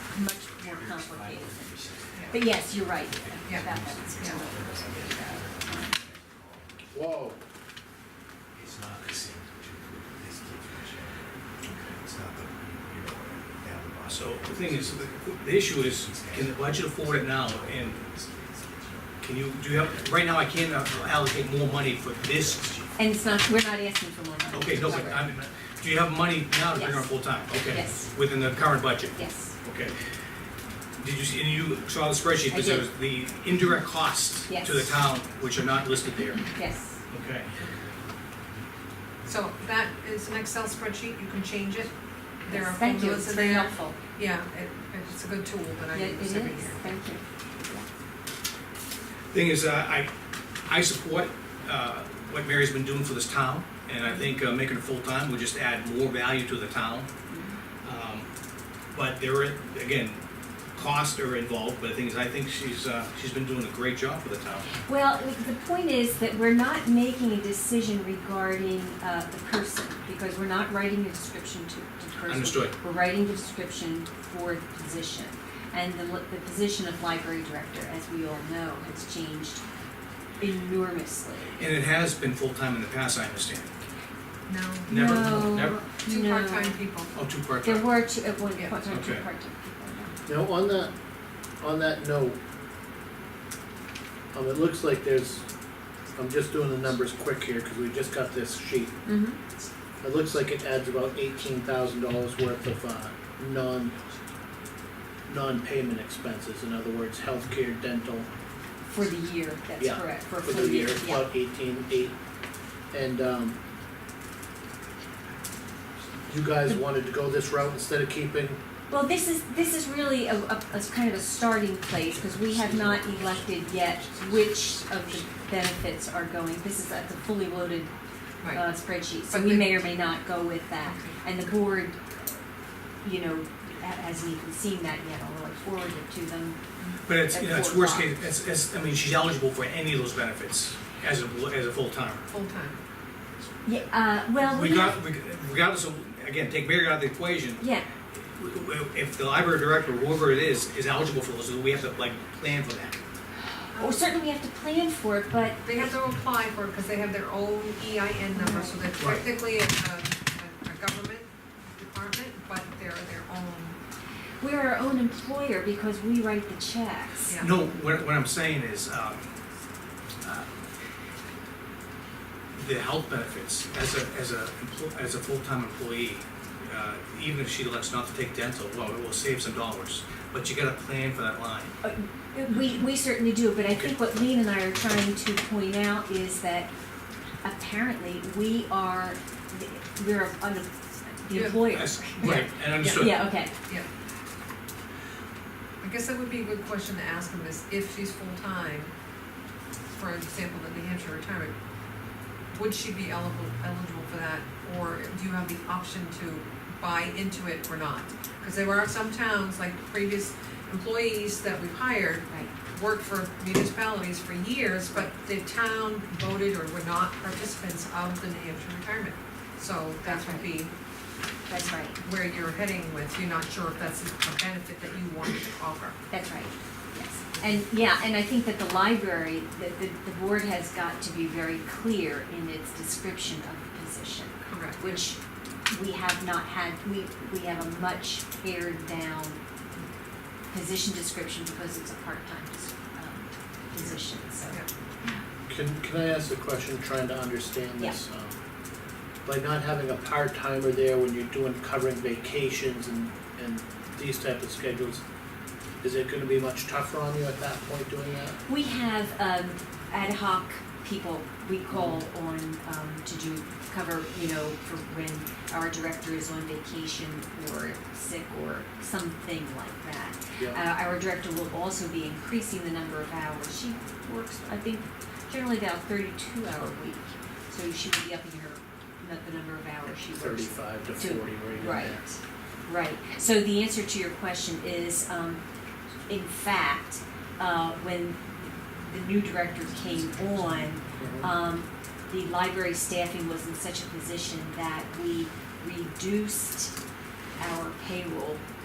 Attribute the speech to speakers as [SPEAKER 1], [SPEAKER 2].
[SPEAKER 1] But yes, you're right.
[SPEAKER 2] Yeah.
[SPEAKER 1] That one's-
[SPEAKER 3] Whoa.
[SPEAKER 4] It's not the same to this It's not the, you know, down the bottom.
[SPEAKER 5] So the thing is, the, the issue is, can the budget afford it now, and can you, do you have, right now I can't uh, allocate more money for this.
[SPEAKER 1] And it's not, we're not asking for more money.
[SPEAKER 5] Okay, no, but I'm, do you have money now to bring her
[SPEAKER 1] Yes.
[SPEAKER 5] full-time? Okay.
[SPEAKER 1] Yes.
[SPEAKER 5] Within the current budget?
[SPEAKER 1] Yes,
[SPEAKER 5] Okay. Did you see, and you saw the
[SPEAKER 1] I
[SPEAKER 5] spreadsheet, because there was
[SPEAKER 1] did.
[SPEAKER 5] the indirect costs
[SPEAKER 1] Yes.
[SPEAKER 5] to the town, which are not listed there.
[SPEAKER 1] yes.
[SPEAKER 5] Okay.
[SPEAKER 2] So that is an Excel spreadsheet, you can change it. There are
[SPEAKER 1] Yes, Thank you,
[SPEAKER 2] formulas
[SPEAKER 1] it's
[SPEAKER 2] in
[SPEAKER 1] very
[SPEAKER 2] there.
[SPEAKER 1] helpful.
[SPEAKER 2] Yeah, it, it's a good tool that
[SPEAKER 1] Yeah,
[SPEAKER 2] I
[SPEAKER 1] it is,
[SPEAKER 2] use every year.
[SPEAKER 1] thank you.
[SPEAKER 5] Thing is, uh, I, I support uh, what Mary's been doing for this town, and I think uh, making it full-time would just add more value to the town. Um, But there are, again, costs are involved, but the thing is, I think she's, uh, she's been doing a great job for the town.
[SPEAKER 1] Well, the point is that we're not making a decision regarding uh, the person, because we're not writing a description to to the person.
[SPEAKER 5] Understood.
[SPEAKER 1] We're writing the description for the position. And the, li- the position of library director, as we all know, has changed enormously.
[SPEAKER 5] And it has been full-time in the past, I understand.
[SPEAKER 2] No,
[SPEAKER 5] Never,
[SPEAKER 1] No,
[SPEAKER 5] never?
[SPEAKER 2] two
[SPEAKER 1] no.
[SPEAKER 2] part-time people.
[SPEAKER 5] Oh, two
[SPEAKER 1] There
[SPEAKER 5] part-time.
[SPEAKER 1] were two, at one
[SPEAKER 2] Yeah.
[SPEAKER 1] point, two part-time
[SPEAKER 5] Okay.
[SPEAKER 1] people.
[SPEAKER 3] Now, on that, on that note, um, it looks like there's, I'm just doing the numbers quick here, cause we just got this sheet.
[SPEAKER 1] Mm-hmm.
[SPEAKER 3] It looks like it adds about eighteen thousand dollars worth of, uh, non, non-payment expenses, in other words, healthcare, dental,
[SPEAKER 1] For the year, that's
[SPEAKER 3] Yeah,
[SPEAKER 1] correct, for a
[SPEAKER 3] for
[SPEAKER 1] full
[SPEAKER 3] the
[SPEAKER 1] year,
[SPEAKER 3] year, it's
[SPEAKER 1] yeah.
[SPEAKER 3] about eighteen eight, and, um, you guys wanted to go this route instead of keeping,
[SPEAKER 1] Well, this is, this is really a, a, a kind of a starting place, because we have not elected yet which of the benefits are going, this is at the fully loaded,
[SPEAKER 2] Right.
[SPEAKER 1] uh, spreadsheet, so
[SPEAKER 2] But
[SPEAKER 1] we
[SPEAKER 2] the-
[SPEAKER 1] may or may not go with that. And the board, you know, ha- hasn't even seen that yet, although I forwarded it to them.
[SPEAKER 5] But it's, you know, it's
[SPEAKER 1] At four
[SPEAKER 5] worst case,
[SPEAKER 1] o'clock.
[SPEAKER 5] it's, it's, I mean, she's eligible for any of those benefits as a, as a full-timer.
[SPEAKER 2] Full-time.
[SPEAKER 1] Yeah, uh, well, we,
[SPEAKER 5] Regard- Regardless of, again, take Mary out of the equation,
[SPEAKER 1] yeah,
[SPEAKER 5] if the library director, whoever it is, is eligible for those, we have to like plan for that.
[SPEAKER 1] or certainly we have to plan for it, but
[SPEAKER 2] They have to apply for it because they have their own EIN number, so they're
[SPEAKER 5] Right.
[SPEAKER 2] technically a, a, a government department, but they're their own.
[SPEAKER 1] we're our own employer because we write the checks.
[SPEAKER 2] Yeah.
[SPEAKER 5] No, what, what I'm saying is, um, uh, the health benefits, as a, as a, emplo- as a full-time employee, uh, even if she elects not to take dental, well, it will save some dollars, but you gotta plan for that line.
[SPEAKER 1] Uh, We, we certainly do, but I think what Lean and I are trying to point out is that apparently we are, we're an, the
[SPEAKER 2] Yeah.
[SPEAKER 1] employer.
[SPEAKER 5] Yes, Right, and understood.
[SPEAKER 1] Yeah, okay,
[SPEAKER 2] I guess that would be a good question to ask them is if she's full-time, for example, the New Hampshire retirement, would she be eligible, eligible for that? Or do you have the option to buy into it or not? Because there are some towns, like previous employees that we've hired,
[SPEAKER 1] right.
[SPEAKER 2] worked for municipalities for years, but the town voted or were not participants of the New Hampshire retirement. So that would be
[SPEAKER 1] That's right,
[SPEAKER 2] where you're heading with, you're not sure if that's a benefit that you want to offer.
[SPEAKER 1] that's right, yes. And, yeah, and I think that the library, that the, the board has got to be very clear in its description of the position,
[SPEAKER 2] Correct.
[SPEAKER 1] which we have not had, we, we have a much pared down position description because it's a part-time, um, position, so.
[SPEAKER 2] Yeah.
[SPEAKER 3] can, can I ask a question, trying to understand this? um, By not having a part-timer there when you're doing, covering vacations and, and these type of schedules, is it gonna be much tougher on you at that point doing that?
[SPEAKER 1] We have um, ad hoc people we call on um, to do cover, you know, for when our director is on vacation or sick or something like that.
[SPEAKER 3] Yeah,
[SPEAKER 1] Uh, our director will also be increasing the number of hours. She works, I think, generally about thirty-two hour week. So she will be upping her, not the number of hours she works.
[SPEAKER 3] thirty-five to
[SPEAKER 1] Two.
[SPEAKER 3] forty, right in
[SPEAKER 1] Right,
[SPEAKER 3] there.
[SPEAKER 1] right. So the answer to your question is, um, in fact, uh, when the new director came on,
[SPEAKER 3] Mhm.
[SPEAKER 1] um, the library staffing was in such a position that we reduced our payroll